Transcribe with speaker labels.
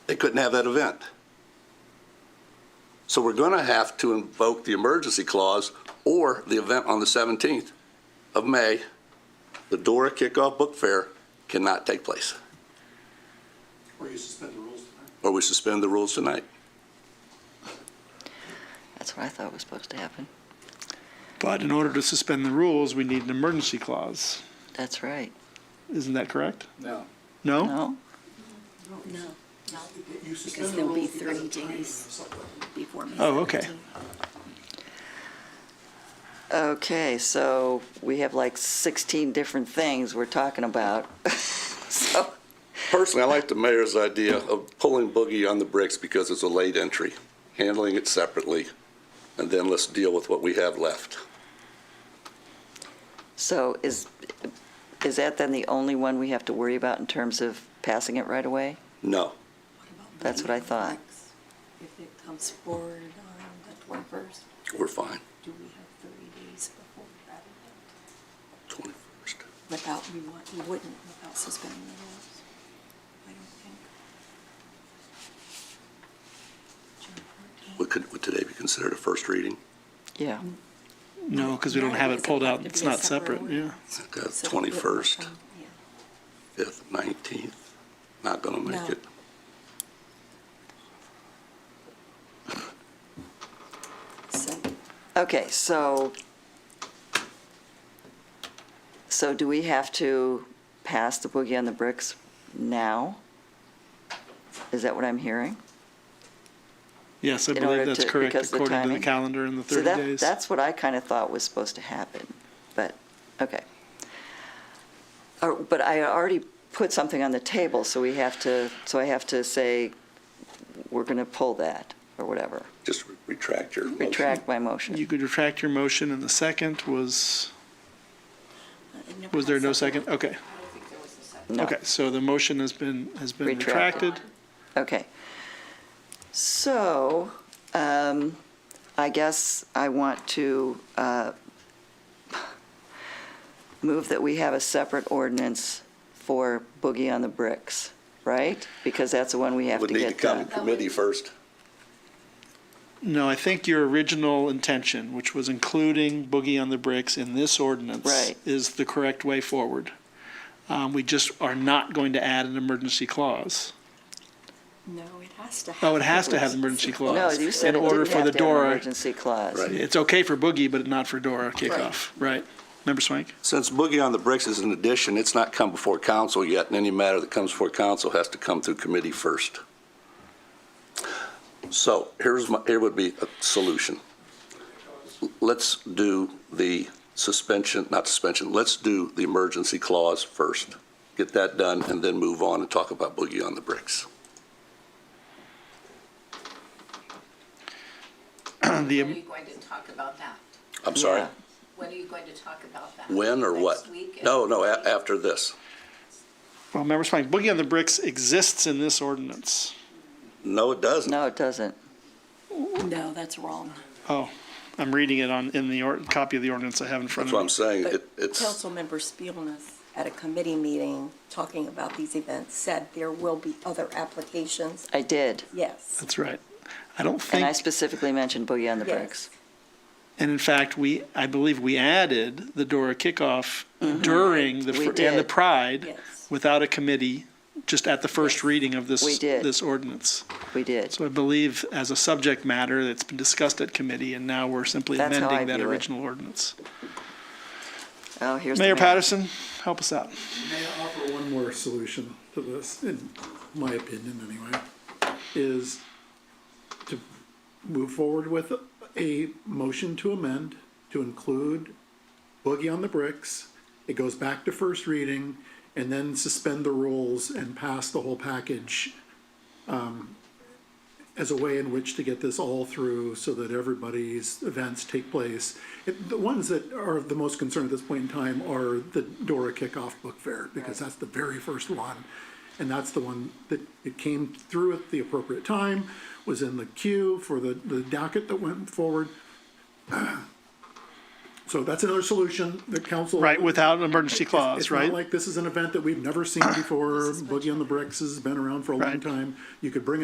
Speaker 1: couldn't have that event. So we're going to have to invoke the emergency clause or the event on the 17th of May, the Dora Kickoff Book Fair cannot take place,
Speaker 2: Or you suspend the rules tonight.
Speaker 1: or we suspend the rules tonight.
Speaker 3: That's what I thought was supposed to happen.
Speaker 4: But in order to suspend the rules, we need an emergency clause.
Speaker 3: That's right.
Speaker 4: Isn't that correct?
Speaker 2: No.
Speaker 4: No?
Speaker 5: No,
Speaker 3: No?
Speaker 2: You
Speaker 5: because
Speaker 2: suspend the
Speaker 5: there'll be
Speaker 2: rules because
Speaker 5: three
Speaker 2: of timing and
Speaker 5: days
Speaker 2: stuff like that.
Speaker 5: before May
Speaker 4: Oh, okay.
Speaker 5: 17.
Speaker 3: Okay, so we have like 16 different things we're talking about. So,
Speaker 1: Personally, I like the mayor's idea of pulling Boogie on the bricks because it's a late entry, handling it separately, and then let's deal with what we have left.
Speaker 3: so is, is that then the only one we have to worry about in terms of passing it right away?
Speaker 1: No,
Speaker 3: That's what I thought.
Speaker 5: If it comes forward on the 21st,
Speaker 1: we're fine,
Speaker 5: do we have 30 days before that event?
Speaker 1: 21st.
Speaker 5: Without, we want, we wouldn't without suspending the rules. I don't think.
Speaker 1: Would, could, would today be considered a first reading?
Speaker 3: Yeah.
Speaker 4: No, because we don't have it pulled out. It's not separate, yeah.
Speaker 1: Okay, 21st, 5th, 19th, not gonna
Speaker 5: No.
Speaker 1: make it.
Speaker 5: So,
Speaker 3: Okay, so, so do we have to pass the Boogie on the Bricks now? Is that what I'm hearing?
Speaker 4: Yes, I
Speaker 3: In order
Speaker 4: believe that's
Speaker 3: to-
Speaker 4: correct
Speaker 3: because of the
Speaker 4: according to the
Speaker 3: timing.
Speaker 4: calendar in the
Speaker 3: So
Speaker 4: 30
Speaker 3: that-
Speaker 4: days.
Speaker 3: That's what I kind of thought was supposed to happen, but, okay. Or- But I already put something on the table, so we have to, so I have to say, we're going to pull that, or whatever.
Speaker 1: Just retract your motion.
Speaker 3: Retract my
Speaker 4: You
Speaker 3: motion.
Speaker 4: could retract your motion and the second was,
Speaker 5: I never
Speaker 4: was
Speaker 5: had
Speaker 4: there no
Speaker 5: something.
Speaker 4: second? Okay,
Speaker 3: No.
Speaker 4: okay, so the motion has been, has been
Speaker 3: Retracted.
Speaker 4: retracted.
Speaker 3: Okay. So, um, I guess I want to, uh, move that we have a separate ordinance for Boogie on the Bricks, right? Because that's the one we have to
Speaker 1: Would need to
Speaker 3: get
Speaker 1: come
Speaker 3: done.
Speaker 1: to committee first.
Speaker 4: No, I think your original intention, which was including Boogie on the Bricks in this ordinance,
Speaker 3: Right.
Speaker 4: is the correct way forward. Um, we just are not going to add an emergency clause.
Speaker 5: No, it has to have.
Speaker 4: Oh, it has to have an emergency clause.
Speaker 3: No, you said
Speaker 4: in
Speaker 3: it
Speaker 4: order
Speaker 3: didn't
Speaker 4: for
Speaker 3: have
Speaker 4: the
Speaker 3: to have an
Speaker 4: Dora.
Speaker 3: emergency clause.
Speaker 1: Right.
Speaker 4: It's okay for Boogie, but not for Dora kickoff, right? Member Swank?
Speaker 1: Since Boogie on the Bricks is an addition, it's not come before council yet, and any matter that comes before council has to come through committee first. So here's my, here would be a solution. Let's do the suspension, not suspension, let's do the emergency clause first. Get that done and then move on and talk about Boogie on the Bricks.
Speaker 6: When are
Speaker 4: Uh, The, um,
Speaker 6: you going to talk about that?
Speaker 1: I'm sorry,
Speaker 3: Yeah.
Speaker 6: When are you going to talk about that?
Speaker 1: when or what?
Speaker 6: Next week?
Speaker 1: No, no, a- after this.
Speaker 4: well, Member Swank, Boogie on the Bricks exists in this ordinance.
Speaker 1: No, it doesn't.
Speaker 3: No, it doesn't.
Speaker 5: No, that's wrong.
Speaker 4: Oh, I'm reading it on, in the or, copy of the ordinance I have in front
Speaker 1: That's
Speaker 4: of me.
Speaker 1: what I'm saying. It-
Speaker 5: But
Speaker 1: It's,
Speaker 5: Councilmember Spielness, at a committee meeting, talking about these events, said there will be other applications.
Speaker 3: I did,
Speaker 5: Yes.
Speaker 4: That's right. I don't think.
Speaker 3: and I specifically mentioned Boogie on the
Speaker 5: Yes.
Speaker 3: Bricks.
Speaker 4: And in fact, we, I believe we added the Dora kickoff during the,
Speaker 3: Mm-hmm. We
Speaker 4: fir- and the
Speaker 3: did.
Speaker 4: Pride
Speaker 5: Yes.
Speaker 4: without a committee, just at the first
Speaker 5: Yes.
Speaker 4: reading of this,
Speaker 3: We did.
Speaker 4: this ordinance.
Speaker 3: We did.
Speaker 4: So I believe as a subject matter, that's been discussed at committee, and now we're simply
Speaker 3: That's how I
Speaker 4: amending that
Speaker 3: view it.
Speaker 4: original ordinance.
Speaker 3: Oh, here's the
Speaker 4: Mayor Patterson, help us out.
Speaker 2: May I offer one more solution to this, in my opinion anyway, is to move forward with a motion to amend to include Boogie on the Bricks. It goes back to first reading and then suspend the rules and pass the whole package um, as a way in which to get this all through so that everybody's events take place. It- The ones that are of the most concern at this point in time are the Dora Kickoff Book Fair, because that's the very first one. And that's the one that it came through at the appropriate time, was in the queue for the, the docket that went forward. So that's another solution that council.
Speaker 4: Right, without an emergency clause,
Speaker 2: It's not
Speaker 4: right?
Speaker 2: like this is an event that we've never seen before. Boogie on the Bricks has been around for a long
Speaker 4: Right.
Speaker 2: time. You could bring